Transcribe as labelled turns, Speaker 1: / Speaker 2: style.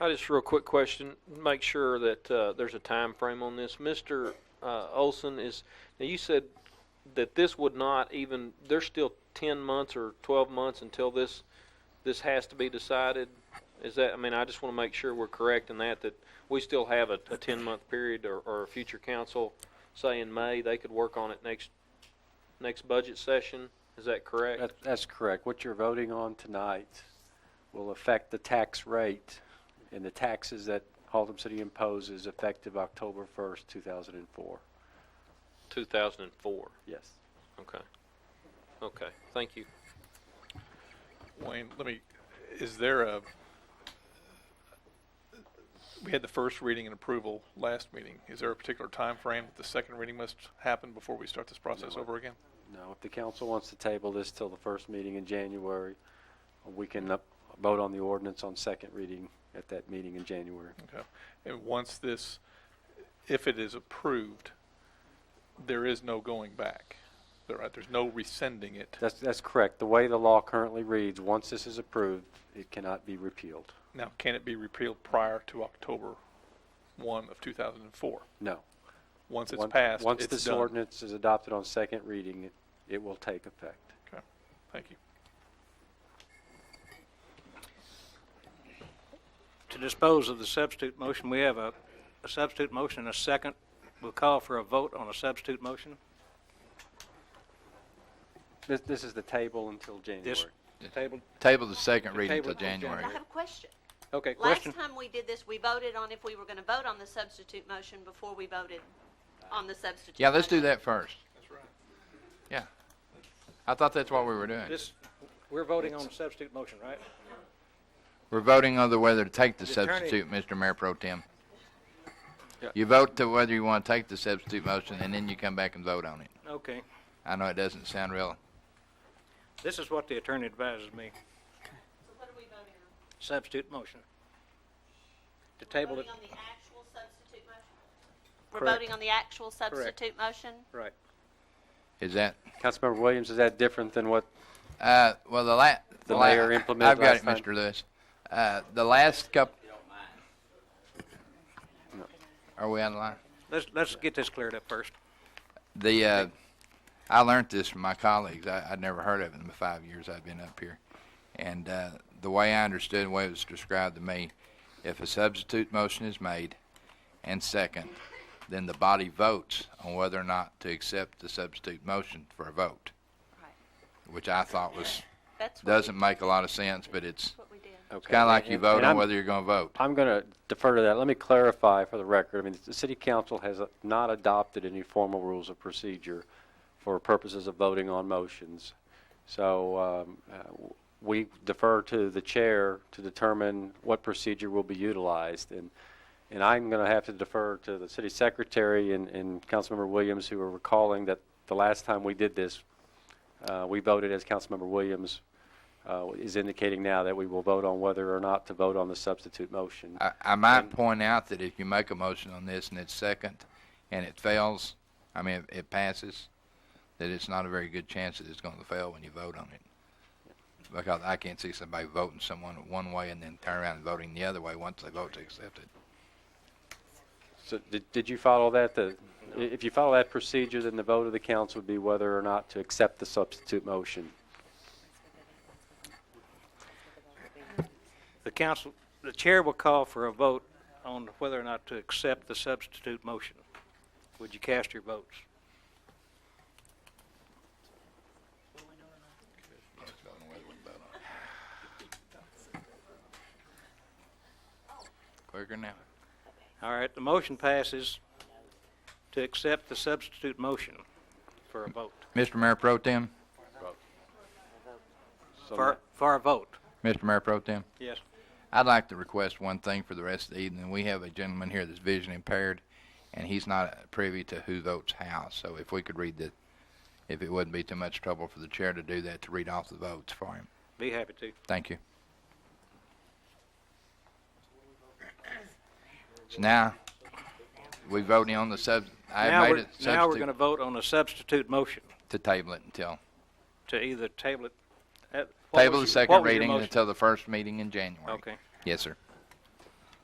Speaker 1: I just real quick question, make sure that, uh, there's a time frame on this. Mr. Uh, Olson is, now you said that this would not even, there's still ten months or twelve months until this, this has to be decided? Is that, I mean, I just wanna make sure we're correct in that, that we still have a, a ten-month period or, or a future council, say in May, they could work on it next, next budget session. Is that correct?
Speaker 2: That, that's correct. What you're voting on tonight will affect the tax rate and the taxes that Haltom City imposes effective October first, two thousand and four.
Speaker 1: Two thousand and four.
Speaker 2: Yes.
Speaker 1: Okay. Okay, thank you.
Speaker 3: Wayne, let me, is there a, we had the first reading and approval last meeting. Is there a particular time frame that the second reading must happen before we start this process over again?
Speaker 2: Now, if the council wants to table this till the first meeting in January, we can up, vote on the ordinance on second reading at that meeting in January.
Speaker 3: Okay. And once this, if it is approved, there is no going back. There- Right, there's no rescinding it.
Speaker 2: That's, that's correct. The way the law currently reads, once this is approved, it cannot be repealed.
Speaker 3: Now, can it be repealed prior to October one of two thousand and four?
Speaker 2: No.
Speaker 3: Once it's
Speaker 2: Once-
Speaker 3: passed,
Speaker 2: Once
Speaker 3: it's
Speaker 2: this
Speaker 3: done.
Speaker 2: ordinance is adopted on second reading, it- it will take effect.
Speaker 3: Okay, thank you.
Speaker 4: To dispose of the substitute motion, we have a a substitute motion and a second. We'll call for a vote on a substitute motion.
Speaker 2: This, this is the table until January.
Speaker 4: This table,
Speaker 5: Table the second
Speaker 4: The
Speaker 5: reading
Speaker 4: table
Speaker 5: until
Speaker 4: till
Speaker 5: January.
Speaker 6: I have a question.
Speaker 4: okay,
Speaker 6: Last
Speaker 4: question?
Speaker 6: time we did this, we voted on if we were going to vote on the substitute motion before we voted on the substitute.
Speaker 5: Yeah, let's do
Speaker 6: motion.
Speaker 5: that first. That's right. Yeah. I thought that's what we were doing.
Speaker 4: This, we're voting on a substitute motion, right?
Speaker 5: We're voting on the whether to take the
Speaker 4: The attorney-
Speaker 5: substitute, Mr. Mayor Pro Tem.
Speaker 2: Yeah.
Speaker 5: You vote to whether you want to take the substitute motion, and then you come back and vote on it.
Speaker 4: Okay.
Speaker 5: I know it doesn't sound real.
Speaker 4: This is what the attorney advises me,
Speaker 6: So what are we voting on?
Speaker 4: substitute motion. To table it,
Speaker 6: Voting on the actual substitute motion? We're
Speaker 4: Correct.
Speaker 6: voting on the actual substitute motion?
Speaker 4: right.
Speaker 5: Is that,
Speaker 2: Councilmember Williams, is that different than what,
Speaker 5: uh, well, the la-
Speaker 2: The
Speaker 5: la-
Speaker 2: mayor implemented
Speaker 5: I've got
Speaker 2: last
Speaker 5: it,
Speaker 2: time.
Speaker 5: Mr. Lewis. Uh, the last couple. Are we on the line?
Speaker 4: Let's, let's get this cleared up first.
Speaker 5: The uh, I learned this from my colleagues. I, I'd never heard of it in the five years I've been up here, and uh, the way I understood, the way it was described to me, if a substitute motion is made and second, then the body votes on whether or not to accept the substitute motion for a vote,
Speaker 6: Right.
Speaker 5: which I thought was
Speaker 6: That's what,
Speaker 5: doesn't make a lot of sense, but it's,
Speaker 6: that's what we did.
Speaker 5: it's kind of like you vote
Speaker 2: And
Speaker 5: on
Speaker 2: I'm-
Speaker 5: whether you're going to vote.
Speaker 2: I'm going to defer to that. Let me clarify for the record. I mean, the city council has uh, not adopted any formal rules of procedure for purposes of voting on motions. So um, uh, w- we defer to the chair to determine what procedure will be utilized. And, and I'm going to have to defer to the city secretary and, and Councilmember Williams, who are recalling that the last time we did this, uh, we voted as Councilmember Williams uh, is indicating now that we will vote on whether or not to vote on the substitute motion.
Speaker 5: I, I might point out that if you make a motion on this and it's second and it fails, I mean, it, it passes, that it's not a very good chance that it's going to fail when you vote on it. Because I can't see somebody voting someone one way and then turn around and voting the other way once they vote to accept it.
Speaker 2: So did, did you follow that? The, i- if you follow that procedure, then the vote of the council would be whether or not to accept the substitute motion.
Speaker 4: The council, the chair will call for a vote on whether or not to accept the substitute motion. Would you cast your votes?
Speaker 5: Quicker now.
Speaker 4: All right, the motion passes to accept the substitute motion for a vote,
Speaker 5: Mr. Mayor Pro Tem,
Speaker 2: So
Speaker 4: for, for a vote.
Speaker 5: Mr. Mayor Pro Tem,
Speaker 4: Yes.
Speaker 5: I'd like to request one thing for the rest of the evening. We have a gentleman here that's vision impaired and he's not privy to who votes how. So if we could read the, if it wouldn't be too much trouble for the chair to do that, to read off the votes for him.
Speaker 4: Be happy to.
Speaker 5: Thank you. So now, we voting on the sub,
Speaker 4: Now
Speaker 5: I
Speaker 4: we're-
Speaker 5: made it
Speaker 4: Now we're going to
Speaker 5: substitute
Speaker 4: vote on a substitute motion
Speaker 5: to table it until,
Speaker 4: to either table it. uh, what
Speaker 5: table
Speaker 4: was your-
Speaker 5: the
Speaker 4: what
Speaker 5: second
Speaker 4: was your
Speaker 5: reading
Speaker 4: motion?
Speaker 5: until the first meeting in January.
Speaker 4: Okay.
Speaker 5: Yes, sir.